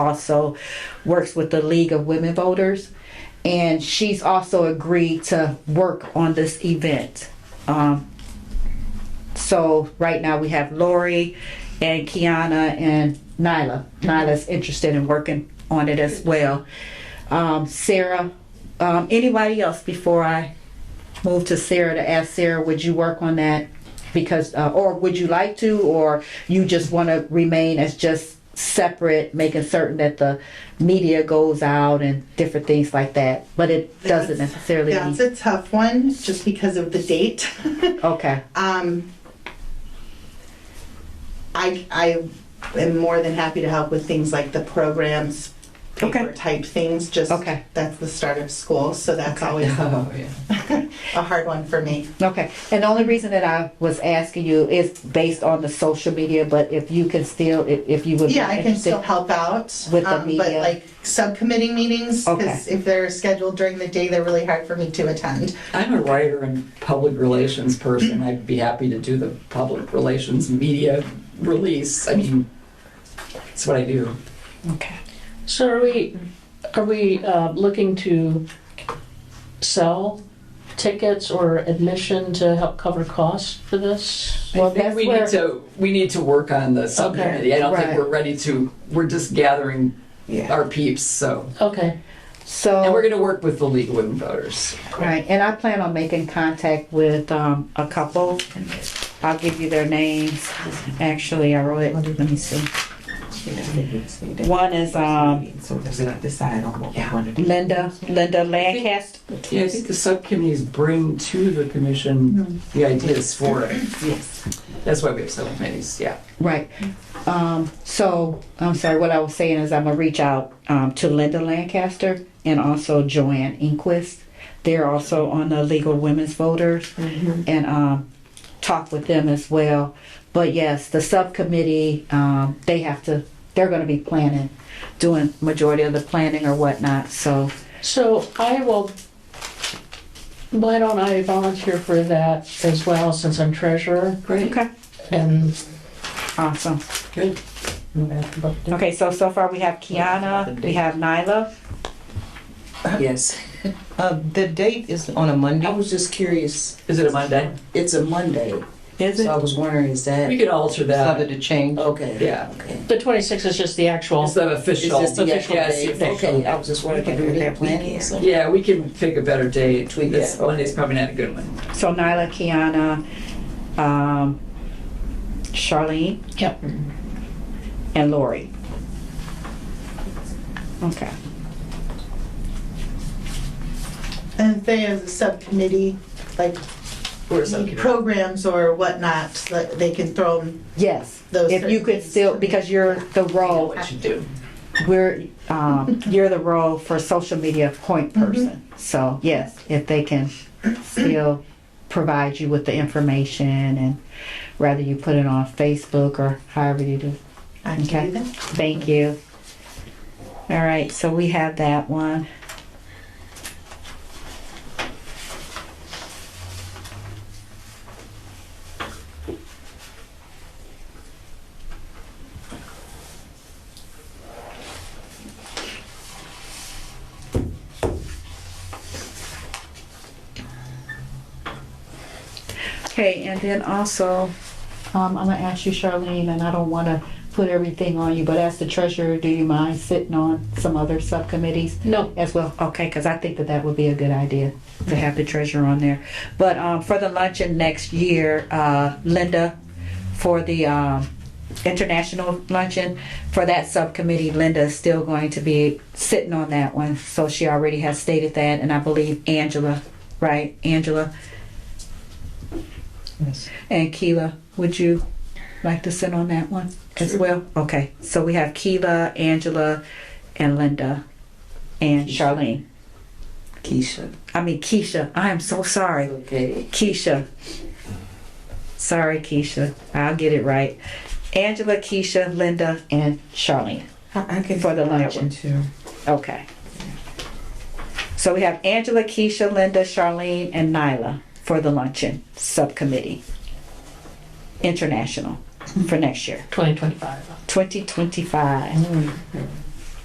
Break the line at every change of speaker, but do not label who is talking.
also works with the League of Women Voters, and she's also agreed to work on this event. Um, so right now we have Lori and Kiana and Nyla. Nyla's interested in working on it as well. Um, Sarah, um, anybody else before I move to Sarah to ask Sarah, would you work on that? Because, uh, or would you like to, or you just want to remain as just separate, making certain that the media goes out and different things like that, but it doesn't necessarily.
That's a tough one, just because of the date.
Okay,
Um, I, I am more than happy to help with things like the programs, paper
Okay.
type things, just,
Okay.
that's the start of school, so that's
Okay.
always a a hard one for me.
okay. And the only reason that I was asking you is based on the social media, but if you can still, if, if you would be
Yeah, I can still
interested.
help out.
With the
um, But
media.
like subcommittee meetings,
Okay.
because if they're scheduled during the day, they're really hard for me to attend.
I'm a writer and public relations person. I'd be happy to do the public relations media release. I mean, it's what I do.
Okay.
So are we, are we uh, looking to sell tickets or admission to help cover costs for this?
Well,
I think
that's
we
where-
need to we need to work on the subcommittee. I don't
right.
think we're ready to. We're just gathering
Yeah.
our peeps. So
Okay,
So.
and we're going to work with the League of Women Voters.
Right, and I plan on making contact with um, a couple. I'll give you their names. Actually, I wrote it. Let me see. One is um,
So they're gonna decide on what we
Yeah.
wanna do.
Linda Linda Lancaster.
Yeah, I think the subcommittees bring to the commission
Mm-hmm.
the ideas for it.
Yes.
That's why we have subcommittees. Yeah.
Right. Um, so I'm sorry. What I was saying is I'm gonna reach out um, to Linda Lancaster and also Joanne Inquist. They're also on the Legal Women's Voters,
Mm-hmm.
and um, talk with them as well. But yes, the subcommittee um, they have to. They're going to be planning, doing majority of the planning or whatnot. So
so I will, why don't I volunteer for that as well, since I'm treasurer?
Great.
okay,
And
awesome.
Good.
Okay, so so far we have Kiana, we have Nyla.
Yes.
Uh, the date is on a
I
Monday.
was just curious.
Is it a Monday?
It's a Monday.
Is
So I was wondering, is
We
that,
could alter
Other
that.
to change.
okay.
Yeah.
Okay.
the 26th is just the actual,
It's the
It's
official.
just the
Yeah,
official
yeah, it's the
date.
official.
Okay, I was just wondering,
Okay,
can we
that
make planning or something?
Yeah, we can pick a better date.
Tweak
This
that.
Monday's probably not a good one.
So Nyla, Kiana, um, Charlene. Mm-hmm.
Yep.
And Lori. Okay.
And they, as a subcommittee, like
Or
need
something.
programs or whatnot, that they can throw them
Yes.
Those
if you
certain
could
things.
still, because you're the role,
What you do.
we're um, you're the role for social media point person. So yes, if they can still provide you with the information and rather you put it on Facebook or however you do.
I can
Okay.
do that.
Thank you. All right, so we have that one. Okay, and then also, um, I'm gonna ask you, Charlene, and I don't wanna put everything on you, but as the treasurer, do you mind sitting on some other subcommittees
no,
as well? Okay, because I think that that would be a good idea to have the treasurer on there. But, um, for the luncheon next year, uh, Linda, for the, um, international luncheon, for that subcommittee, Linda is still going to be sitting on that one. So she already has stated that, and I believe Angela, right, Angela?
Yes.
And Keela, would you like to sit on that one as well? Okay, so we have Keela, Angela, and Linda, and Charlene.
Keisha,
I mean, Keisha, I am so sorry.
okay.
Keisha. Sorry, Keisha. I'll get it right. Angela, Keisha, Linda, and Charlene.
I I can.
For the
do that
luncheon.
one Too.
Okay. So we have Angela, Keisha, Linda, Charlene, and Nyla for the luncheon subcommittee. International for next year.
2025.
2025.